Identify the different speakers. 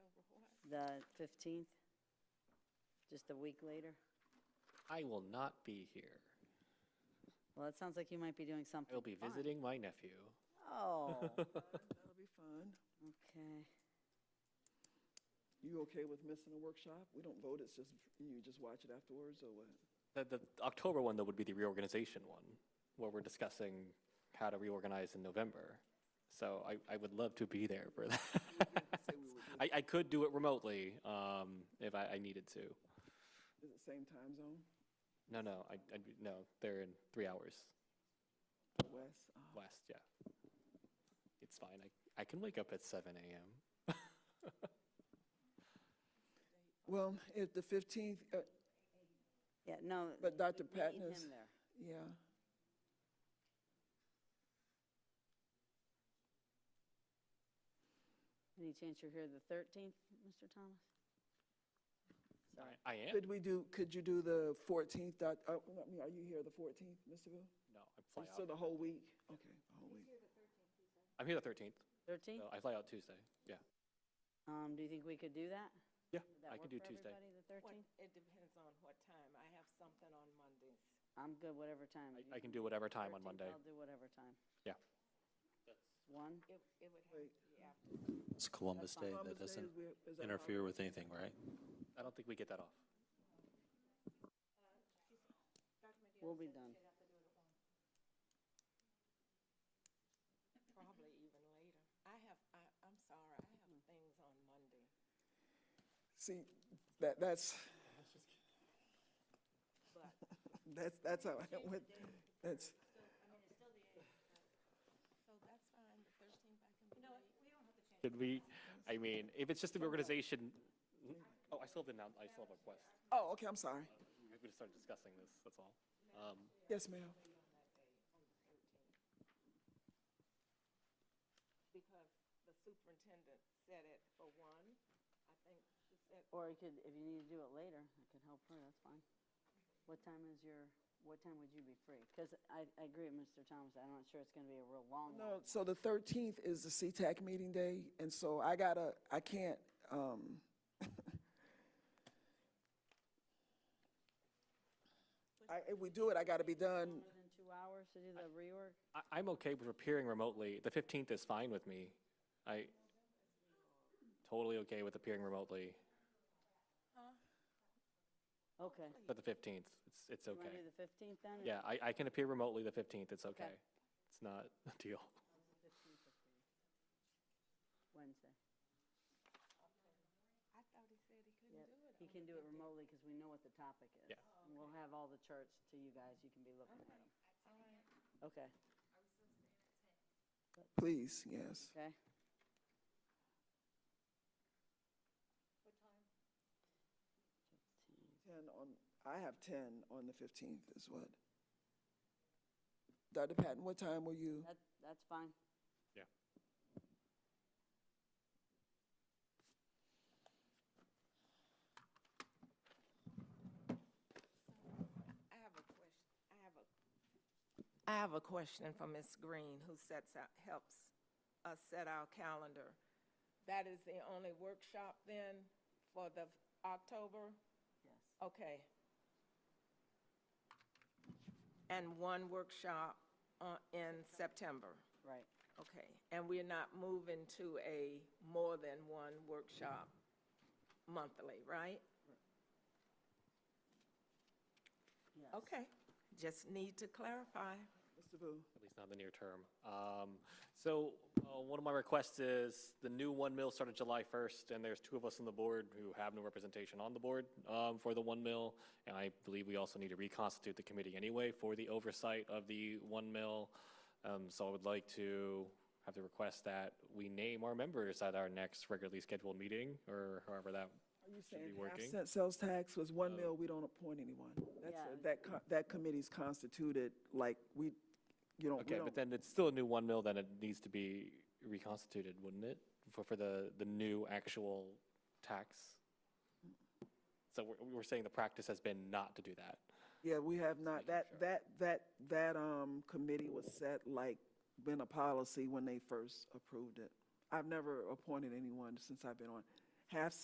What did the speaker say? Speaker 1: the 15th? Just a week later?
Speaker 2: I will not be here.
Speaker 1: Well, it sounds like you might be doing something.
Speaker 2: I will be
Speaker 1: fun.
Speaker 2: visiting my nephew.
Speaker 1: Oh,
Speaker 3: That'll be fun.
Speaker 1: okay.
Speaker 3: You okay with missing a workshop? We don't vote, it's just, you just watch it afterwards or what?
Speaker 2: The, the October one, though, would be the reorganization one, where we're discussing how to reorganize in November. So I, I would love to be there for that.
Speaker 3: Say we would do-
Speaker 2: I, I could do it remotely um, if I, I needed to.
Speaker 3: Is it same time zone,
Speaker 2: No, no, I, I, no, they're in three hours
Speaker 3: Wes? Oh,
Speaker 2: west, yeah. It's fine. I, I can wake up at 7 a.m.
Speaker 3: Well, if the 15th, uh,
Speaker 1: Yeah, no.
Speaker 3: But Dr.
Speaker 1: we need
Speaker 3: Patness-
Speaker 1: him there.
Speaker 3: yeah.
Speaker 1: Any chance you're here the 13th, Mr. Thomas?
Speaker 2: I, I am.
Speaker 3: Could we do, could you do the 14th, Doc- uh, I mean, are you here the 14th, Mr. Bill?
Speaker 2: No, I fly
Speaker 3: So the
Speaker 2: out.
Speaker 3: whole week? Okay, the whole week.
Speaker 2: I'm here the 13th. So
Speaker 1: 13th?
Speaker 2: I fly out Tuesday. Yeah.
Speaker 1: Um, do you think we could do that?
Speaker 2: Yeah,
Speaker 1: Would that
Speaker 2: I can
Speaker 1: work
Speaker 2: do
Speaker 1: for
Speaker 2: Tuesday.
Speaker 1: everybody, the 13th?
Speaker 4: What- It depends on what time. I have something on Mondays.
Speaker 1: I'm good, whatever time.
Speaker 2: I,
Speaker 1: You
Speaker 2: I can do whatever time on
Speaker 1: 13th,
Speaker 2: Monday.
Speaker 1: I'll do whatever time.
Speaker 2: Yeah.
Speaker 1: One?
Speaker 4: It, it would have
Speaker 3: Wait.
Speaker 4: to be after.
Speaker 5: It's Columbus Day,
Speaker 3: Columbus
Speaker 5: that
Speaker 3: Day is where- is
Speaker 5: doesn't
Speaker 3: that
Speaker 5: interfere with anything, right?
Speaker 2: I don't think we get that off.
Speaker 1: We'll be done.
Speaker 4: Probably even later. Mm-hmm. I have, I, I'm sorry, I have things on Monday.
Speaker 3: See, that, that's,
Speaker 4: But
Speaker 3: that's, that's how I went, that's,
Speaker 4: So that's fine, the thirteenth I can be late.
Speaker 2: Should we, I mean, if it's just the reorganization, oh, I still have the, annou- I still have a quest.
Speaker 3: oh, okay, I'm sorry.
Speaker 2: We just started discussing this, that's all. Um,
Speaker 3: Yes, ma'am.
Speaker 4: Because the superintendent said it for one. I think she said,
Speaker 1: Or you could, if you need to do it later, I could help her, that's fine. What time is your, what time would you be free? Because I, I agree with Mr. Thomas, I'm not sure it's gonna be a real long one.
Speaker 3: No, so the 13th is the CTAC meeting day, and so I gotta, I can't, um, I, if we do it, I gotta be done.
Speaker 1: More than two hours to do the reorg?
Speaker 2: I, I'm okay with appearing remotely, the 15th is fine with me. I, totally okay with appearing remotely,
Speaker 1: Okay.
Speaker 2: but the 15th, it's, it's
Speaker 1: You wanna do
Speaker 2: okay.
Speaker 1: the fifteenth then?
Speaker 2: Yeah, I, I can appear remotely the 15th, it's
Speaker 1: Okay.
Speaker 2: okay. It's not a deal.
Speaker 1: Wednesday.
Speaker 4: I thought he said he
Speaker 1: Yep.
Speaker 4: couldn't do it.
Speaker 1: He
Speaker 4: on
Speaker 1: can do
Speaker 4: the
Speaker 1: it
Speaker 4: 15th.
Speaker 1: remotely because we know what the topic is.
Speaker 2: Yeah.
Speaker 1: And we'll have all the charts to you guys, you can be looking at them. Okay,
Speaker 3: Please, yes.
Speaker 1: okay. What time?
Speaker 3: 10 on, I have 10 on the 15th is what? Dr. Patton, what time were you?
Speaker 1: That, that's fine.
Speaker 2: Yeah.
Speaker 4: I have a question, I have a. I have a question for Ms. Green, who sets out, helps us set our calendar. That is the only workshop then for the October?
Speaker 1: Yes.
Speaker 4: Okay. And one workshop uh, in September?
Speaker 1: Right.
Speaker 4: Okay, and we're not moving to a more than one workshop monthly, right?
Speaker 1: Yes.
Speaker 4: Okay, just need to clarify.
Speaker 3: Mr. Vu?
Speaker 2: at least not in the near term. Um, So uh, one of my requests is, the new One Mill started July 1st, and there's two of us on the board who have no representation on the board um, for the One Mill, and I believe we also need to reconstitute the committee anyway for the oversight of the One Mill. Um, So I would like to have the request that we name our members at our next regularly scheduled meeting, or however that
Speaker 3: Are you
Speaker 2: should be
Speaker 3: saying half
Speaker 2: working. Oh.
Speaker 3: cent sales tax was one mil, we don't appoint anyone?
Speaker 1: Yeah.
Speaker 3: That's, that, co- that committee's constituted, like, we, you don't, we
Speaker 2: Okay, but
Speaker 3: don't.
Speaker 2: then it's still a new one mill, then it needs to be reconstituted, wouldn't it? For, for the, the new actual tax? So we're, we're saying the practice has been not to do that.
Speaker 3: Yeah, we have not, that, that, that, that, um, committee was set, like, been a policy when they first approved it. I've never appointed anyone since I've been on. Half